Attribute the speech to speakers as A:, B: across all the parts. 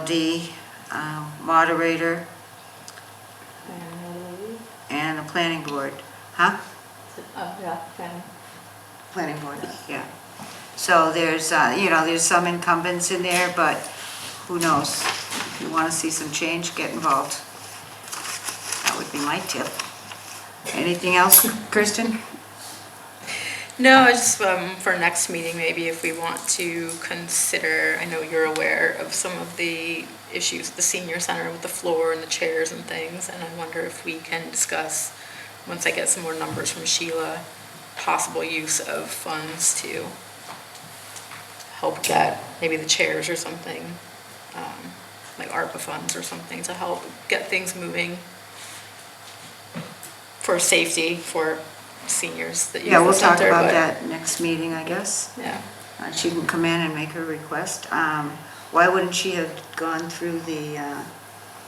A: LD, uh, moderator, and the planning board, huh?
B: Oh, yeah, okay.
A: Planning board, yeah. So there's, uh, you know, there's some incumbents in there, but who knows? If you want to see some change, get involved. That would be my tip. Anything else, Kristen?
C: No, I just, um, for next meeting, maybe if we want to consider, I know you're aware of some of the issues at the senior center with the floor and the chairs and things, and I wonder if we can discuss, once I get some more numbers from Sheila, possible use of funds to help that, maybe the chairs or something, um, like ARPA funds or something to help get things moving for safety for seniors that use
A: Yeah,
C: the
A: we'll talk
C: center.
A: about
C: but-
A: that next meeting, I guess.
C: yeah.
A: Uh, She can come in and make her request. Um, Why wouldn't she have gone through the uh,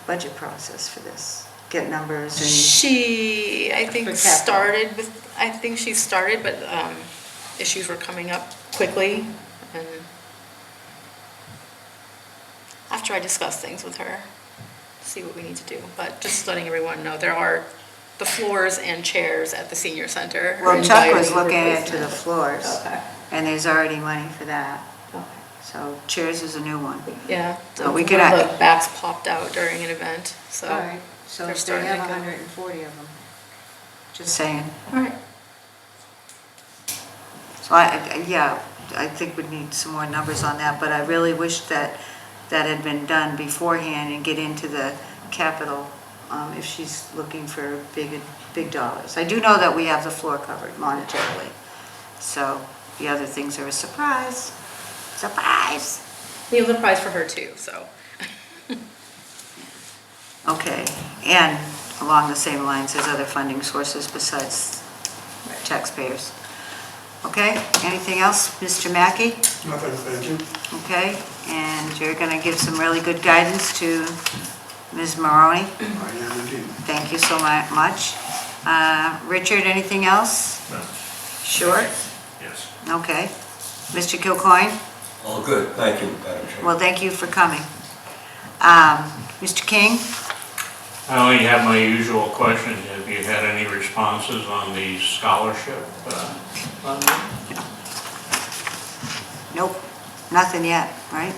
A: budget process for this? Get numbers and,
C: She, I think,
A: capital.
C: started with, I think she started, but um, issues were coming up quickly. and After I discuss things with her, see what we need to do. But just letting everyone know, there are the floors and chairs at the senior center. are
A: well, Chuck was
C: inviting
A: looking into the
C: replacement.
A: floors,
C: Okay,
A: and there's already money for that.
C: okay.
A: So chairs is a new one.
C: Yeah.
A: So we
C: One
A: could
C: of
A: add-
C: the Backs popped out during an event, so.
A: All right, so
C: they're
A: if they
C: starting to
A: have
C: go.
A: hundred and forty of them. Just saying.
C: All right.
A: So I, I- yeah, I think we'd need some more numbers on that, but I really wish that that had been done beforehand and get into the capital um, if she's looking for big, big dollars. I do know that we have the floor covered monetarily, so the other things are a surprise, surprise.
C: We have the prize for her too, so.
A: Okay, and along the same lines, there's other funding sources besides taxpayers. Okay, anything else, Mr. Mackey?
D: Nothing, thank you.
A: Okay, and you're gonna give some really good guidance to Ms. Maroney.
D: I am indeed.
A: Thank you so mu- much. Uh, Richard, anything else?
E: No.
A: Sure?
E: Yes.
A: Okay. Mr. Kilcoyne?
F: All Oh, good, thank you, Madam Chair.
A: Well, thank you for coming. Um, Mr. King?
E: I only have my usual question, have you had any responses on the scholarship? uh, fund?
A: Nope, nothing yet, right?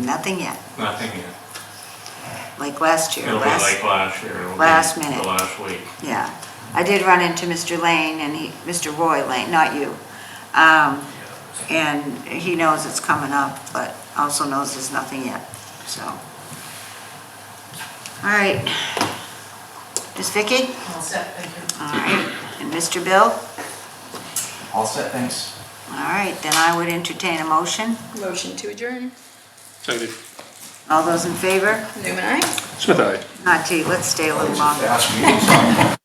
A: Nothing yet,
E: Nothing yet.
A: like last year.
E: It'll be
A: last-
E: like last year. it'll be
A: last minute.
E: The last week.
A: Yeah, I did run into Mr. Lane and he, Mr. Roy Lane, not you. Um, and he knows it's coming up, but also knows there's nothing yet, so. All right. Is Vicky?
B: All set, thank you.
A: All right, and Mr. Bill?
G: All set, thanks.
A: All right, then I would entertain a motion.
C: Motion to adjourn.
H: Seconded.
A: All those in favor?
C: Newman, aye?
H: Smith, aye.
A: Not T, Ah, let's stay a little
G: Just
A: longer.
G: fast meetings.